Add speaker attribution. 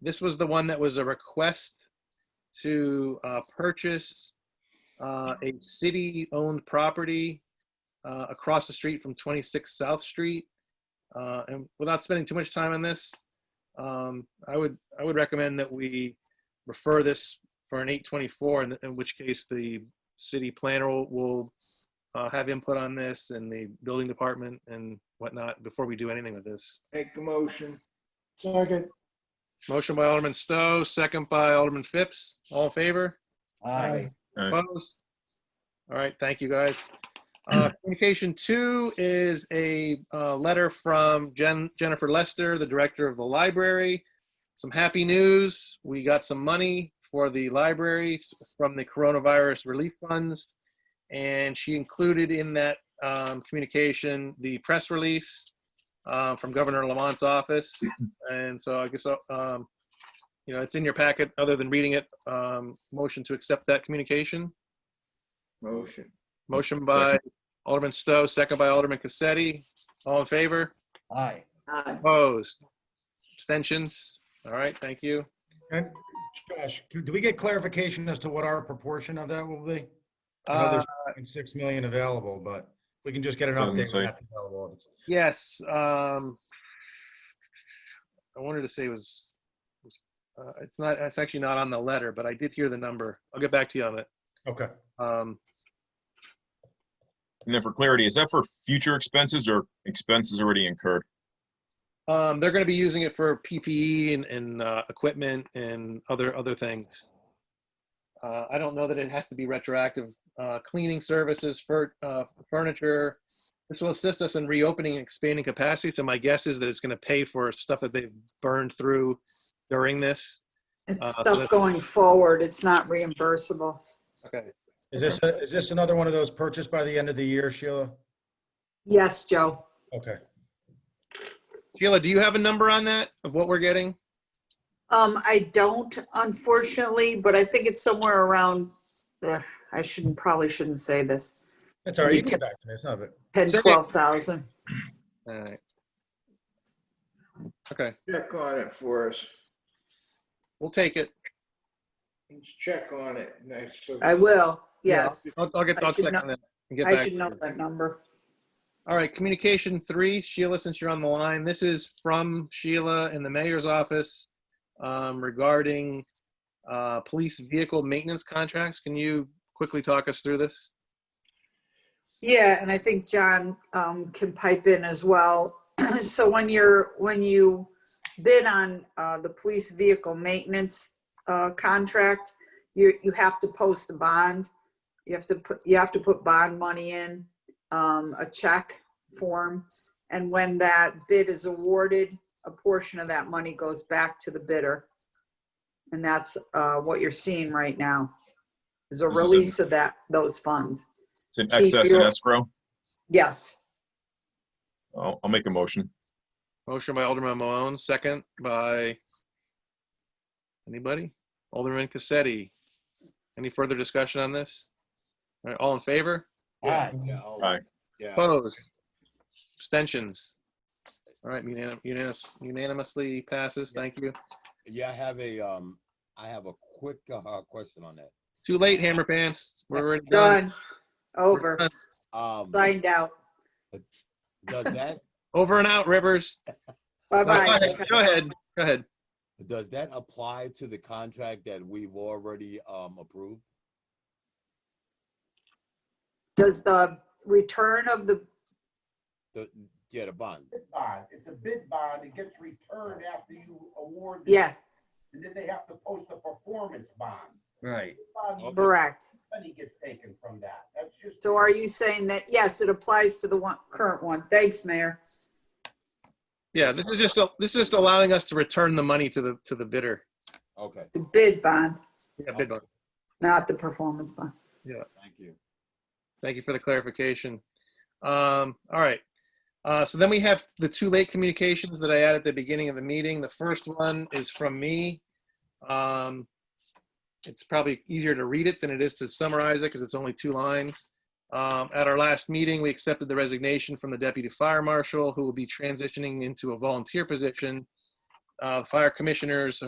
Speaker 1: this was the one that was a request to uh, purchase uh, a city-owned property uh, across the street from 26 South Street. Uh, And without spending too much time on this, um, I would, I would recommend that we refer this for an 824, in in which case the city planner will- will uh, have input on this and the building department and whatnot before we do anything with this.
Speaker 2: Make a motion.
Speaker 3: Second,
Speaker 1: Motion by Alderman Stowe, second by Alderman Phipps. All in favor?
Speaker 3: aye,
Speaker 4: Aye.
Speaker 1: Opposed? All right, thank you, guys. Uh, Communication two is a uh, letter from Jen Jennifer Lester, the director of the library. Some happy news, we got some money for the library from the coronavirus relief funds. And she included in that um, communication the press release uh, from Governor Lamont's office. And so I guess, uh, um, you know, it's in your packet, other than reading it. Um, Motion to accept that communication.
Speaker 2: Motion.
Speaker 1: Motion by Alderman Stowe, second by Alderman Cassetti. All in favor?
Speaker 3: aye.
Speaker 5: Aye.
Speaker 1: Opposed? Abstentions? All right, thank you.
Speaker 6: And Josh, do we get clarification as to what our proportion of that will be? I know
Speaker 1: Uh,
Speaker 6: there's 6 million available, but we can just get an
Speaker 4: Doesn't
Speaker 6: update
Speaker 4: say.
Speaker 6: when that's available. It's-
Speaker 1: Yes, um, I wanted to say it was, was, uh, it's not, it's actually not on the letter, but I did hear the number. I'll get back to you on it.
Speaker 6: Okay.
Speaker 1: Um,
Speaker 4: And then for clarity, is that for future expenses or expenses already incurred?
Speaker 1: Um, they're going to be using it for PPE and, and uh, equipment and other other things. Uh, I don't know that it has to be retroactive. Uh, cleaning services for uh, furniture. This will assist us in reopening and expanding capacity. So my guess is that it's going to pay for stuff that they've burned through during this. Uh,
Speaker 5: It's
Speaker 1: so
Speaker 5: stuff
Speaker 1: that's-
Speaker 5: going forward. It's not reimbursable.
Speaker 1: Okay.
Speaker 6: Is this, a- is this another one of those purchased by the end of the year, Sheila?
Speaker 5: Yes, Joe.
Speaker 6: Okay.
Speaker 1: Sheila, do you have a number on that of what we're getting?
Speaker 5: Um, I don't unfortunately, but I think it's somewhere around, ugh, I shouldn't, probably shouldn't say this,
Speaker 6: That's all right. You can get back to me. It's not, a-
Speaker 5: 10,
Speaker 1: Say it.
Speaker 5: 12,000.
Speaker 1: All right. Okay,
Speaker 2: Check on it for us.
Speaker 1: we'll take it.
Speaker 2: Let's check on it. Nice. So-
Speaker 5: I will,
Speaker 1: Yeah,
Speaker 5: yes.
Speaker 1: I'll, I'll get.
Speaker 5: I
Speaker 1: I'll
Speaker 5: should
Speaker 1: check
Speaker 5: know-
Speaker 1: on that and get
Speaker 5: I
Speaker 1: back
Speaker 5: should
Speaker 1: to
Speaker 5: know
Speaker 1: you.
Speaker 5: that number.
Speaker 1: All right, communication three, Sheila, since you're on the line, this is from Sheila in the mayor's office um, regarding uh, police vehicle maintenance contracts. Can you quickly talk us through this?
Speaker 5: Yeah, and I think John um, can pipe in as well. So when you're, when you bid on uh, the police vehicle maintenance uh, contract, you, you have to post a bond. You have to put, you have to put bond money in, um, a check form. And when that bid is awarded, a portion of that money goes back to the bidder. And that's uh, what you're seeing right now, is a
Speaker 4: This is a-
Speaker 5: release of that, those funds.
Speaker 4: It's in
Speaker 5: See, if
Speaker 4: excess and
Speaker 5: you're-
Speaker 4: escrow?
Speaker 5: Yes.
Speaker 4: I'll, I'll make a motion.
Speaker 1: Motion by Alderman Malone, second by anybody? Alderman Cassetti. Any further discussion on this? All right, all in favor?
Speaker 3: Aye.
Speaker 4: Aye.
Speaker 7: Oh, Yeah,
Speaker 1: Opposed? Abstentions? All right, unanim- unanimous- unanimously passes. Thank you.
Speaker 7: yeah, I have a, um, I have a quick, uh, question on that.
Speaker 1: Too late, Hammer Pants. We're already done.
Speaker 5: Done. Over.
Speaker 7: Um,
Speaker 5: Signed out.
Speaker 7: does that,
Speaker 1: Over and out, Rivers. Go
Speaker 5: Bye-bye.
Speaker 1: ahead. Go ahead. Go ahead.
Speaker 7: does that apply to the contract that we've already, um, approved?
Speaker 5: Does the return of the,
Speaker 7: The, yeah, the bond.
Speaker 8: bid bond. It's a bid bond. It gets returned after you award. the-
Speaker 5: yes,
Speaker 8: And then they have to post a performance bond.
Speaker 3: Right.
Speaker 8: Bond
Speaker 5: correct.
Speaker 8: money gets taken from that. That's just.
Speaker 5: So are you saying that, yes, it applies to the one, current one? Thanks, Mayor.
Speaker 1: Yeah, this is just, this is just allowing us to return the money to the, to the bidder.
Speaker 7: Okay,
Speaker 5: The bid bond,
Speaker 1: Yeah, bid bond.
Speaker 5: not the performance bond.
Speaker 7: thank you.
Speaker 1: Thank you for the clarification. Um, all right. Uh, so then we have the two late communications that I had at the beginning of the meeting. The first one is from me. Um, it's probably easier to read it than it is to summarize it because it's only two lines. Um, at our last meeting, we accepted the resignation from the deputy fire marshal who will be transitioning into a volunteer position. Uh, fire commissioners